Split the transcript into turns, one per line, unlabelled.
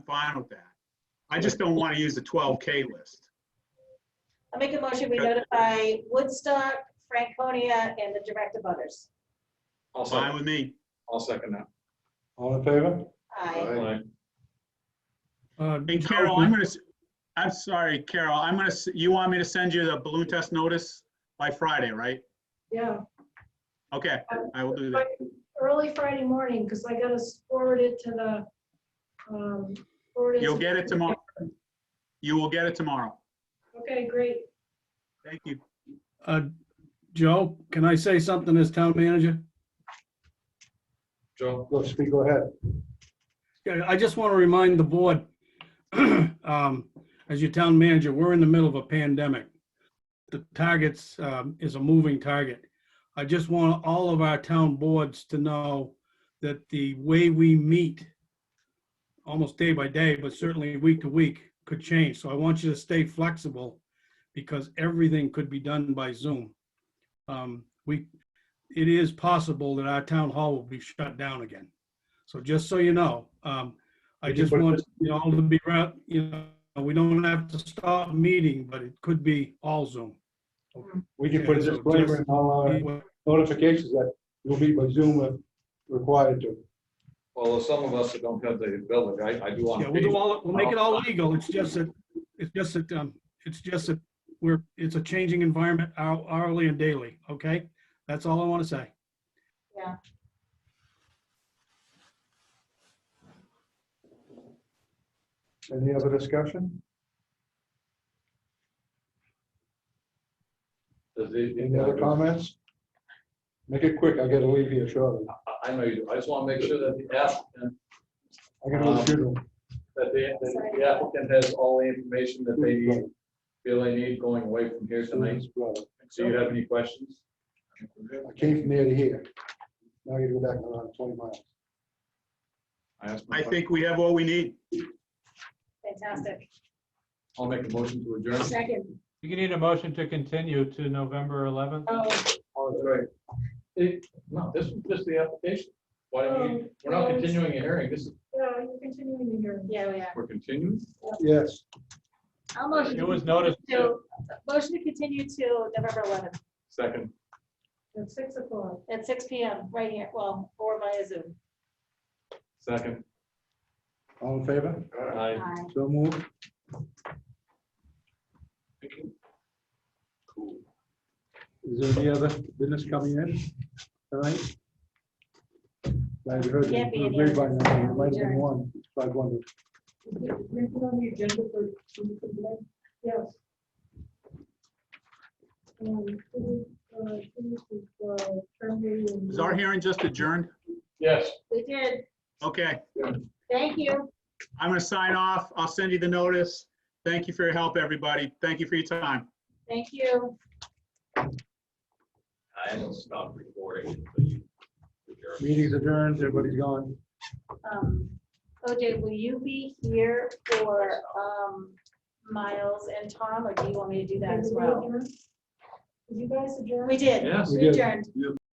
fine with that. I just don't want to use the 12K list.
I'll make a motion, we
Okay.
notify Woodstock, Franconia, and the direct of others.
I'll
Fine
second,
with me.
I'll second that.
All in favor?
Aye.
Uh,
And Carol, I'm gonna, s- I'm sorry, Carol, I'm gonna, s- you want me to send you the balloon test notice by Friday, right?
Yeah,
Okay, I will do that.
early Friday morning, because I gotta forward it to the, um, forward it.
You'll
to-
get it tomorrow. You will get it tomorrow.
Okay, great.
Thank you.
uh, Joe, can I say something as town manager?
Joe?
Let's speak, go ahead.
Yeah, I just want to remind the board, um, as your town manager, we're in the middle of a pandemic. The targets um, is a moving target. I just want all of our town boards to know that the way we meet, almost day by day, but certainly week to week, could change. So I want you to stay flexible because everything could be done by Zoom. Um, We, it is possible that our town hall will be shut down again. So just so you know, um, I
Did you
just
put
want
this-
you all to be, around. you know, we don't have to stop meeting, but it could be all Zoom.
We can put a disclaimer in all our uh, notifications that you'll be by Zoom if required to.
Although some of us that don't have the ability, I, I do want
Yeah,
to
we'll
be,
do all, we'll make it
Oh.
all legal. It's just that, it's just that, um, it's just that we're, it's a changing environment hou- hourly and daily, okay? That's all I want to say.
Any other discussion?
does it-
Any other comments? Make it quick, I gotta leave here shortly.
I- I know you do. I just want to make sure that the applicant,
I gotta leave soon.
that the, that the applicant has all the information that they need, feel they need going away from here tonight. Do you have any questions?
I came from there to here. Now you go back around twenty miles.
asked my
I
question.
think we have what we need.
Fantastic.
I'll make a motion to adjourn.
Second.
You can need a motion to continue to November 11th.
Oh,
Oh, that's right. It- No, this is just the application. Why don't we, we're not continuing a hearing. This is,
Yeah, you're continuing the hearing.
yeah, we are.
we're continuing.
Yes.
I'll motion
It was noticed.
to, motion to continue to November 11th
Second.
At six o'clock.
at 6 PM, right here, well, or via Zoom.
Second.
All in favor?
Aye.
Aye.
So move.
Cool.
Is there any other business coming in tonight? I heard it
Can't be
through
any
the grapevine,
other.
I think it might have been one, so I wondered.
on the agenda for today? Yes. Um, uh, this is, uh, term meeting.
Is our hearing just adjourned?
Yes.
We did.
Okay,
Thank you.
I'm gonna sign off. I'll send you the notice. Thank you for your help, everybody. Thank you for your time.
Thank you.
I will stop recording. until you adjourn.
Meeting's adjourned, everybody's gone.
Um, OJ, will you be here for um, Miles and Tom, or do you want me to do that as well?
Did you guys adjourn?
We did.
Yes.
We adjourned.